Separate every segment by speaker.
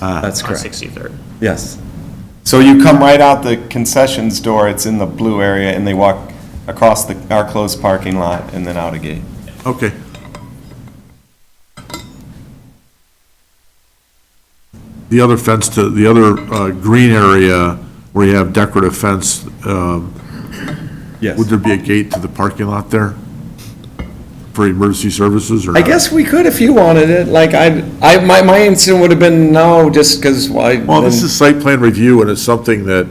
Speaker 1: Ah.
Speaker 2: That's
Speaker 3: on
Speaker 2: correct.
Speaker 3: 63rd.
Speaker 2: Yes.
Speaker 4: So you come right out the concessions door, it's in the blue area, and they walk across the, our closed parking lot and then out a gate.
Speaker 1: Okay. The other fence to, the other uh, green area where you have decorative fence, um,
Speaker 2: Yes.
Speaker 1: would there be a gate to the parking lot there for emergency services or?
Speaker 2: I
Speaker 1: not?
Speaker 2: guess we could if you wanted it, like, I, I, my, my instinct would have been no, just because why?
Speaker 1: Well, this is site plan review and it's something that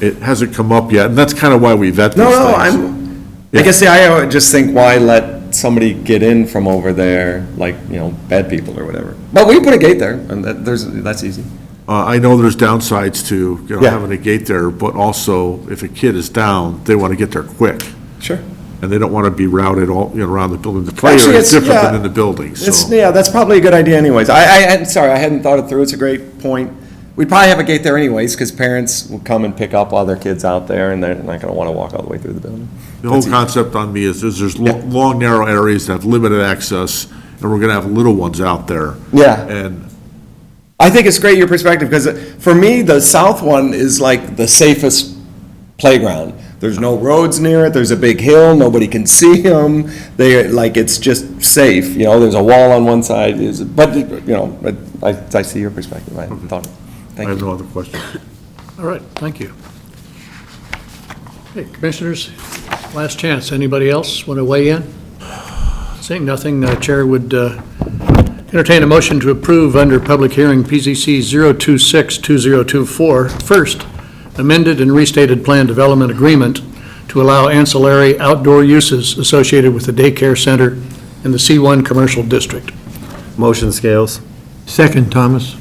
Speaker 1: it hasn't come up yet, and that's kind of why we vet these
Speaker 2: No,
Speaker 1: things.
Speaker 2: no, I'm, I
Speaker 1: Yeah.
Speaker 2: guess, yeah, I would just think, why let somebody get in from over there, like, you know, bad people or whatever. But we can put a gate there, and that, there's, that's easy.
Speaker 1: Uh, I know there's downsides to, you know,
Speaker 2: Yeah.
Speaker 1: having a gate there, but also if a kid is down, they want to get there quick.
Speaker 2: Sure.
Speaker 1: And they don't want to be routed all, you know, around the building. The play
Speaker 2: Actually,
Speaker 1: area is
Speaker 2: it's-
Speaker 1: different than
Speaker 2: yeah.
Speaker 1: in the building,
Speaker 2: It's,
Speaker 1: so.
Speaker 2: yeah, that's probably a good idea anyways. I, I, I'm sorry, I hadn't thought it through, it's a great point. We'd probably have a gate there anyways, because parents will come and pick up all their kids out there, and they're not gonna want to walk all the way through the building.
Speaker 1: The whole concept on me is, is there's lo- long, narrow areas that have limited access, and we're going to have little ones out there.
Speaker 2: Yeah.
Speaker 1: And
Speaker 2: I think it's great your perspective because for me, the south one is like the safest playground. There's no roads near it. There's a big hill. Nobody can see them. They like it's just safe. You know, there's a wall on one side. Is but you know, but I, I see your perspective. I thought.
Speaker 1: I
Speaker 2: Thank
Speaker 1: have
Speaker 2: you.
Speaker 1: no other questions.
Speaker 5: All right, thank you. Okay, commissioners, last chance. Anybody else want to weigh in? Seeing nothing, the Chair would uh, entertain a motion to approve under public hearing PZC 026-2024, first amended and restated plan development agreement to allow ancillary outdoor uses associated with the daycare center in the C1 Commercial District.
Speaker 6: Motion scales.
Speaker 5: Second, Thomas.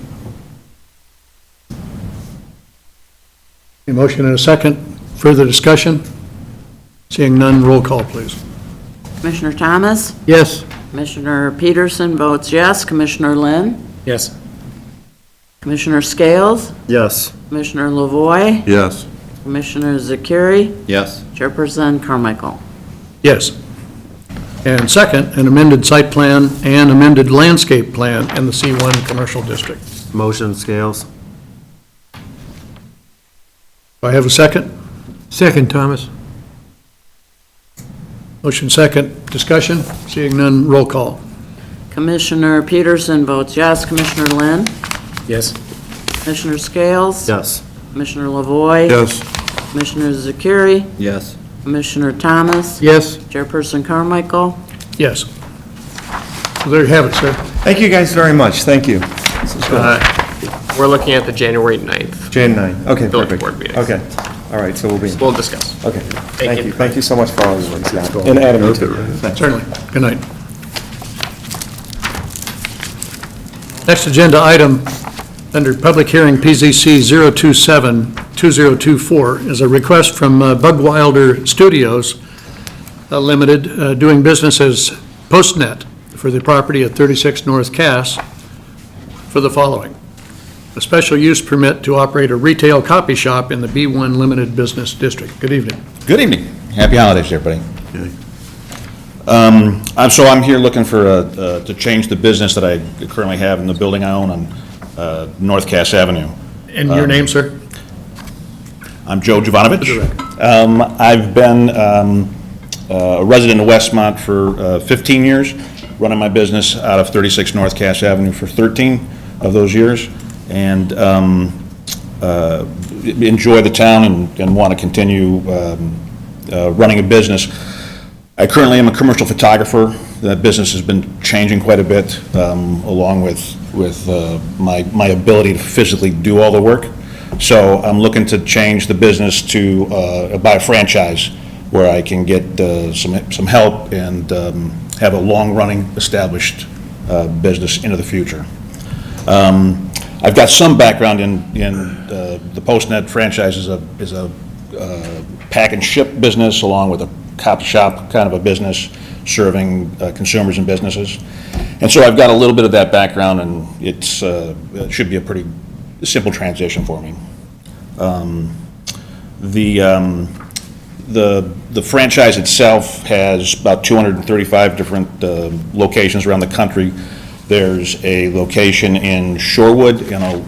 Speaker 5: A motion and a second. Further discussion? Seeing none, roll call, please.
Speaker 7: Commissioner Thomas?
Speaker 5: Yes.
Speaker 7: Commissioner Peterson votes yes. Commissioner Lynn?
Speaker 3: Yes.
Speaker 7: Commissioner Scales?
Speaker 6: Yes.
Speaker 7: Commissioner Lavoy?
Speaker 1: Yes.
Speaker 7: Commissioner Zakiri?
Speaker 6: Yes.
Speaker 7: Chairperson Carmichael?
Speaker 5: Yes. And second, an amended site plan and amended landscape plan in the C1 Commercial District.
Speaker 6: Motion scales.
Speaker 5: Do I have a second? Second, Thomas. Motion second. Discussion? Seeing none, roll call.
Speaker 7: Commissioner Peterson votes yes. Commissioner Lynn?
Speaker 3: Yes.
Speaker 7: Commissioner Scales?
Speaker 6: Yes.
Speaker 7: Commissioner Lavoy?
Speaker 1: Yes.
Speaker 7: Commissioner Zakiri?
Speaker 6: Yes.
Speaker 7: Commissioner Thomas?
Speaker 5: Yes.
Speaker 7: Chairperson Carmichael?
Speaker 5: Yes. So There you have it, sir.
Speaker 4: Thank you guys very much, thank you.
Speaker 8: Uh, We're looking at the January 9th.
Speaker 4: Jan 9, okay,
Speaker 8: Village
Speaker 4: perfect.
Speaker 8: Board meeting.
Speaker 4: Okay, all right, so we'll be,
Speaker 8: We'll discuss.
Speaker 4: okay. Thank
Speaker 8: you.
Speaker 4: you, thank you so much for all your work, yeah. And Adam, you too. Thanks.
Speaker 5: Certainly. Good night. Next agenda item, under public hearing PZC 027-2024, is a request from uh, Bugwilder Studios uh, Limited, uh, doing business as Postnet for the property at 36 North Cass, for the following: a special use permit to operate a retail copy shop in the B1 Limited Business District. Good evening.
Speaker 9: Good evening. Happy holidays, everybody. Um, I'm- So I'm here looking for, uh, uh, to change the business that I currently have in the building I own on uh, North Cass Avenue. Um,
Speaker 5: And your name, sir?
Speaker 9: I'm Joe Jovanovich.
Speaker 5: Correct.
Speaker 9: Um, I've been um, a resident of Westmont for uh, 15 years, running my business out of 36 North Cass Avenue for 13 of those years, and um, uh, enjoy the town and- and want to continue um, uh, running a business. I currently am a commercial photographer. That business has been changing quite a bit, um, along with, with uh, my, my ability to physically do all the work. So I'm looking to change the business to uh, buy a franchise where I can get uh, some, some help and um, have a long-running established uh, business into the future. Um, I've got some background in, in uh, the Postnet franchise is a, is a uh, pack and ship business along with a copy shop kind of a business serving uh, consumers and businesses. And so I've got a little bit of that background and it's, uh, it should be a pretty simple transition for me. Um, The, um, the, the franchise itself has about 235 different uh, locations around the country. There's a location in Shorewood, you know,